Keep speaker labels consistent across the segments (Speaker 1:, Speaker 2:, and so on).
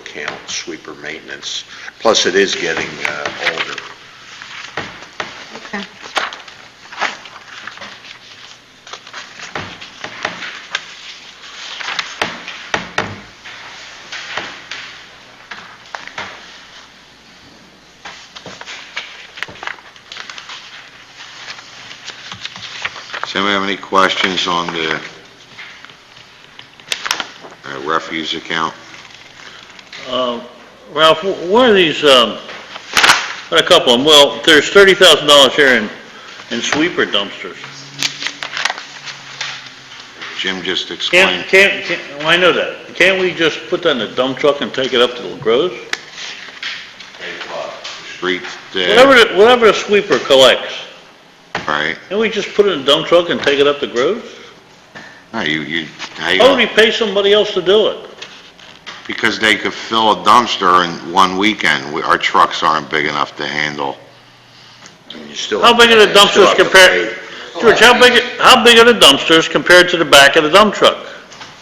Speaker 1: account, sweeper maintenance, plus it is getting uh, older.
Speaker 2: Okay.
Speaker 1: Does anybody have any questions on the uh, refuse account?
Speaker 3: Uh, Ralph, wh- where are these, um, got a couple of them, well, there's thirty thousand dollars here in, in sweeper dumpsters.
Speaker 1: Jim just explained.
Speaker 3: Can't, can't, can't- well, I know that, can't we just put that in a dump truck and take it up to the groves?
Speaker 1: Street,
Speaker 3: Whatever,
Speaker 1: uh,
Speaker 3: the- whatever a sweeper collects,
Speaker 1: right?
Speaker 3: can we just put it in a dump truck and take it up to groves?
Speaker 1: No, you, you, how you
Speaker 3: Or do we pay somebody else to do it?
Speaker 1: Because they could fill a dumpster in one weekend. We- Our trucks aren't big enough to handle.
Speaker 3: How big are the dumpsters compared, George, how big, how big are the dumpsters compared to the back of the dump truck?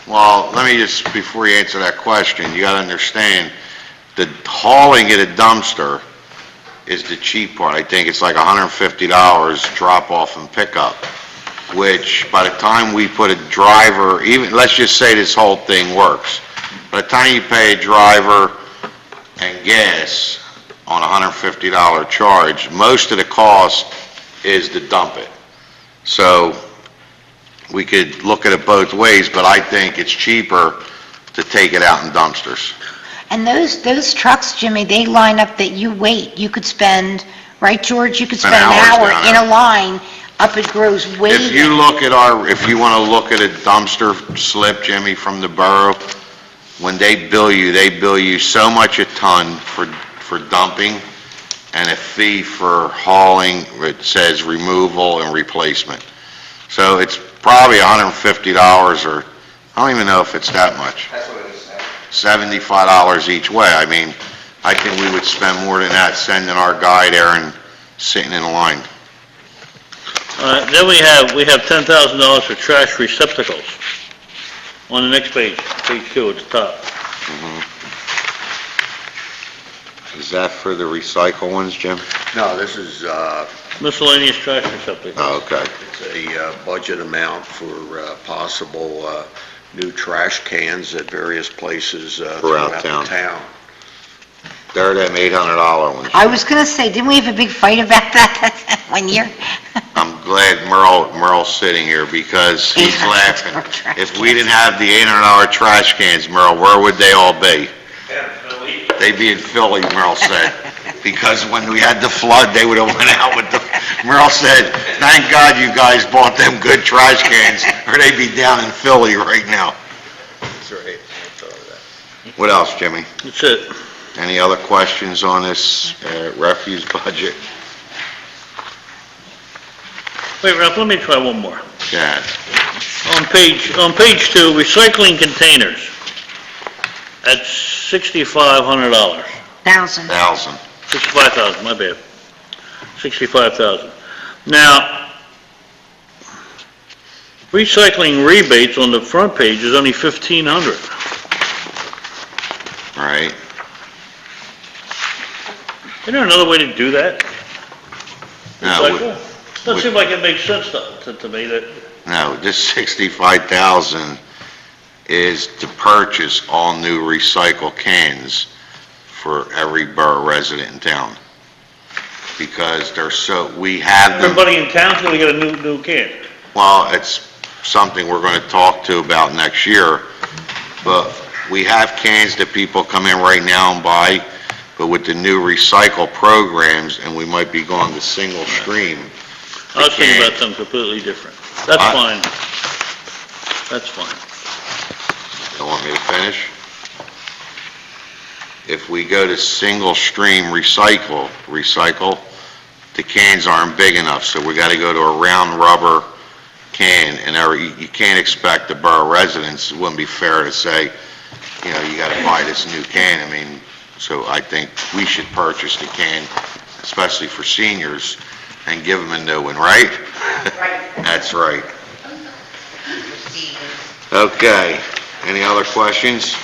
Speaker 1: Well, let me just, before you answer that question, you gotta understand, the hauling at a dumpster is the cheap part. I think it's like $150 drop-off and pickup, which by the time we put a driver, even, let's just say this whole thing works. By the time you pay a driver and gas on a $150 charge, most of the cost is to dump it. So we could look at it both ways, but I think it's cheaper to take it out in dumpsters.
Speaker 2: And those, those trucks, Jimmy, they line up that you wait, you could spend, right, George? You could
Speaker 1: Spend
Speaker 2: spend an
Speaker 1: hours
Speaker 2: hour
Speaker 1: down
Speaker 2: in
Speaker 1: there.
Speaker 2: a line up at Groves
Speaker 1: If you
Speaker 2: waiting.
Speaker 1: look at our, if you want to look at a dumpster slip, Jimmy, from the borough, when they bill you, they bill you so much a ton for, for dumping and a fee for hauling, it says removal and replacement. So it's probably $150 or, I don't even know if it's that much.
Speaker 4: That's what it is now.
Speaker 1: seventy-five dollars each way. I mean, I think we would spend more than that sending our guy there and sitting in line.
Speaker 3: All right, then we have, we have ten thousand dollars for trash receptacles. On the next page, page two at the top.
Speaker 1: Is that for the recycle ones, Jim?
Speaker 5: No, this is, uh,
Speaker 3: Miscellaneous trash receptacles.
Speaker 1: Oh, okay.
Speaker 5: it's a uh, budget amount for uh, possible uh, new trash cans at various places uh,
Speaker 1: Throughout
Speaker 5: throughout
Speaker 1: town.
Speaker 5: the town.
Speaker 1: They're them eight hundred dollar ones.
Speaker 2: I was gonna say, didn't we have a big fight about that one year?
Speaker 1: I'm glad Merle, Merle's sitting here because he's laughing. If we didn't have the eight hundred dollar trash cans, Merle, where would they all be? They'd be in Philly, Merle said, because when we had the flood, they would have went out with the, Merle said, thank God you guys bought them good trash cans, or they'd be down in Philly right now. What else, Jimmy?
Speaker 3: That's it.
Speaker 1: Any other questions on this uh, refuse budget?
Speaker 3: Wait, Ralph, let me try one more.
Speaker 1: Yeah,
Speaker 3: On page, on page two, recycling containers. At sixty-five hundred dollars,
Speaker 2: Thousand.
Speaker 1: thousand.
Speaker 3: sixty-five thousand, my bad. Sixty-five thousand. Now, recycling rebates on the front page is only fifteen hundred.
Speaker 1: Right.
Speaker 3: Isn't there another way to do that?
Speaker 1: Now,
Speaker 3: Like,
Speaker 1: would-
Speaker 3: well, Doesn't
Speaker 1: would-
Speaker 3: seem like it makes sense to, to- to me that,
Speaker 1: No, this 65,000 is to purchase all new recycle cans for every borough resident in town. Because they're so, we have them,
Speaker 3: everybody in town's gonna get a new, new can.
Speaker 1: well, it's something we're going to talk to about next year, but we have cans that people come in right now and buy, but with the new recycle programs, and we might be going to single stream,
Speaker 3: I was thinking
Speaker 1: Okay.
Speaker 3: about something completely different. That's
Speaker 1: I-
Speaker 3: fine. That's fine.
Speaker 1: Don't want me to finish? If we go to single stream recycle, recycle, the cans aren't big enough, so we gotta go to a round rubber can, and our- you you can't expect the borough residents, it wouldn't be fair to say, you know, you gotta buy this new can, I mean, so I think we should purchase the can, especially for seniors, and give them a new one, right? That's right. Okay, any other questions?